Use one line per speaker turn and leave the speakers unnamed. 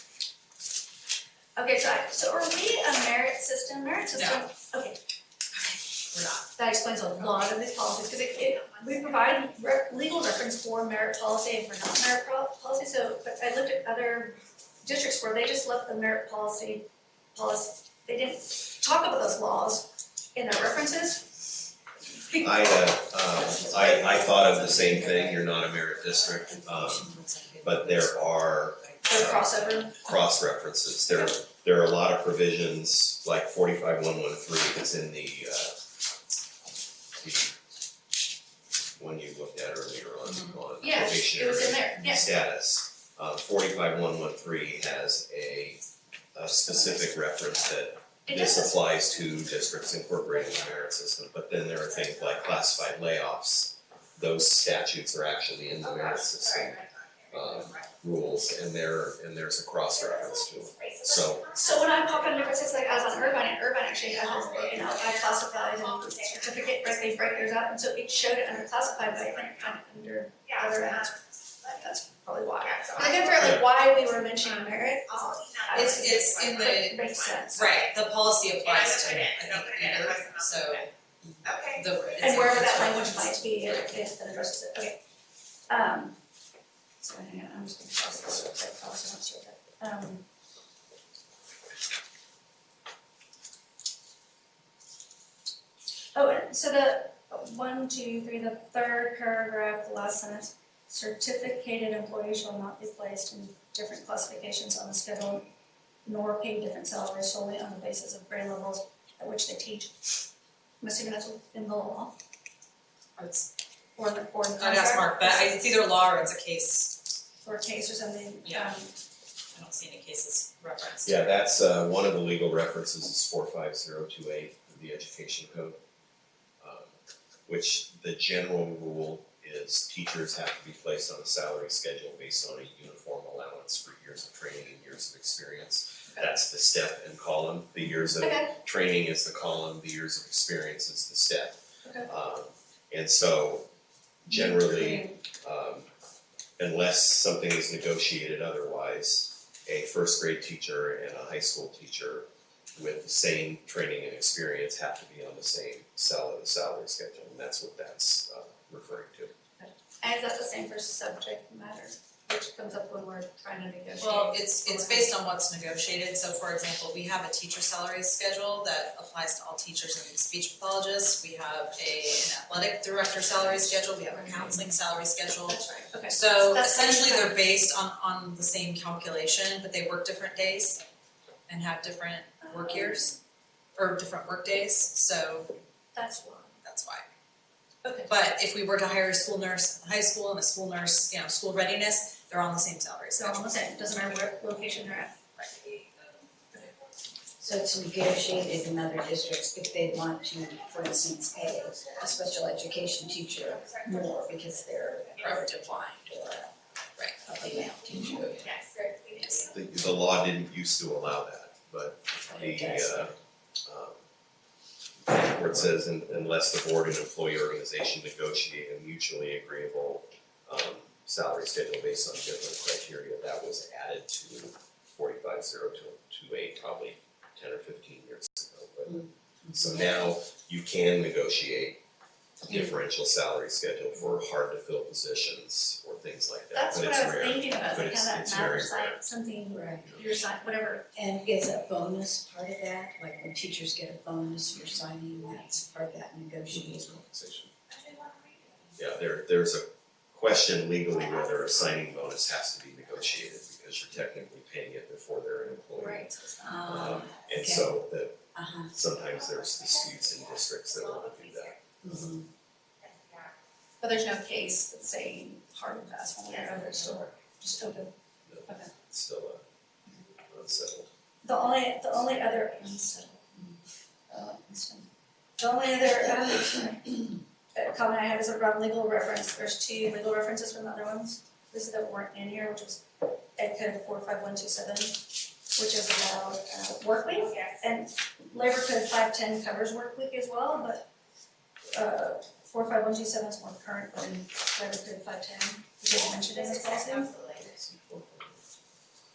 Okay, so I, so are we a merit system, merit system? Okay,
We're not.
that explains a lot of these policies, because it, it, we provide re- legal reference for merit policy and for non-merit pro- policy, so, but I looked at other districts where they just left the merit policy, policy, they didn't talk about those laws in their references.
I, uh, um, I, I thought of the same thing, you're not a merit district, um, but there are
Their crossover,
cross references. There, there are a lot of provisions, like forty-five one one three, that's in the, uh, the uh, one you looked at earlier on, on
yeah, it was in
probationary
there, yes,
status. Uh, forty-five one one three has a, a specific reference that
it
This
does,
applies to districts incorporating the merit system, but then there are things like classified layoffs. Those statutes are actually in the merit system, um, rules, and there, and there's a cross-reference to it. So,
so when I pop in differences, like I was on Irvine, and Irvine actually had, you know, I classified and certificate, right, they break theirs out, and so it showed it under classified, but I think kind of under other, uh, that's probably why. But I couldn't figure out like why we were mentioning merit, I don't
It's,
think
it's in
it
the,
makes sense.
right, the policy applies to,
And
I
I
think,
put it in, I
either,
put it in.
so
Okay.
the. it's
And
in-
wherever
it's
that
right.
language might be, it it that addresses it, okay. Um, so hang on, I'm just gonna cross this real quick, cross it out, sort of, um. Oh, and so the uh, one, two, three, the third paragraph, the last sentence, certificated employees shall not be placed in different classifications on the schedule nor paid different salaries solely on the basis of grade levels at which they teach. I'm assuming that's within the law.
It's,
Or the, or the
I'd
contract
ask Mark, but I- it's either law or it's a case,
Or case or something, um,
Yeah. I don't see any cases referenced.
yeah, that's, uh, one of the legal references is four five zero two eight of the education code. um, Which the general rule is teachers have to be placed on a salary schedule based on a uniform allowance for years of training and years of experience. That's the step and column, the years of
okay,
training is the column, the years of experience is the step.
Okay.
Um, and so generally, um, unless something is negotiated otherwise, a first grade teacher and a high school teacher with the same training and experience have to be on the same cell of the salary schedule, and that's what that's, uh, referring to.
and is that the same for subject matter, which comes up when we're trying to negotiate?
Well, it's, it's based on what's negotiated, so for example, we have a teacher salary schedule that applies to all teachers and speech pathologists. We have a, an athletic director salary schedule, we have a counseling salary schedule.
That's right, okay,
So
That's what I'm
essentially,
trying-
they're based on, on the same calculation, but they work different days and have different
Oh.
work years or different work days, so
that's why,
that's why.
okay,
But if we were to hire a school nurse in high school and a school nurse, you know, school readiness, they're on the same salary
so
schedule.
I'm saying, doesn't matter where location they're at, uh,
So it's negotiated in other districts if they want to, for instance, pay a special education teacher more because they're are defined or a
Right.
a female teacher.
Yes.
Yes.
The, the law didn't used to allow that, but
but it
the
does.
uh um where it says "Un- unless the board and employee organization negotiate a mutually agreeable um salary schedule based on different criteria, that was added to forty-five zero two two eight probably ten or fifteen years ago, but so now you can negotiate a differential salary schedule for hard to fill positions or things like that,
that's
but
what
it's
I was
rare.
thinking about, like how
but it's-
that
it's very
matters,
rare.
like something,
Right,
your sign, whatever,
and is a bonus part of that, like when teachers get a bonus for signing, that's part of that negotiation.
compensation. Yeah, there, there's a question legally whether a signing bonus has to be negotiated because you're technically paying it before they're an employee.
right,
Um,
And
okay.
so that
uh-huh,
sometimes there's disputes in districts that want to do that.
mhm.
but there's no case that's saying hard and fast one way or another, so just open.
It's still uh, unsettled.
The only, the only other, I'm so-
uh,
oh, this one. The only other, um, uh, comment I have is around legal reference, there's two legal references from the other ones. This is that weren't in here, which is Ed Code four five one two seven, which is about, uh, work week. And Labor Code five ten covers work week as well, but, uh, four five one two seven is more current than Labor Code five ten, which is mentioned in this policy.
It's equal.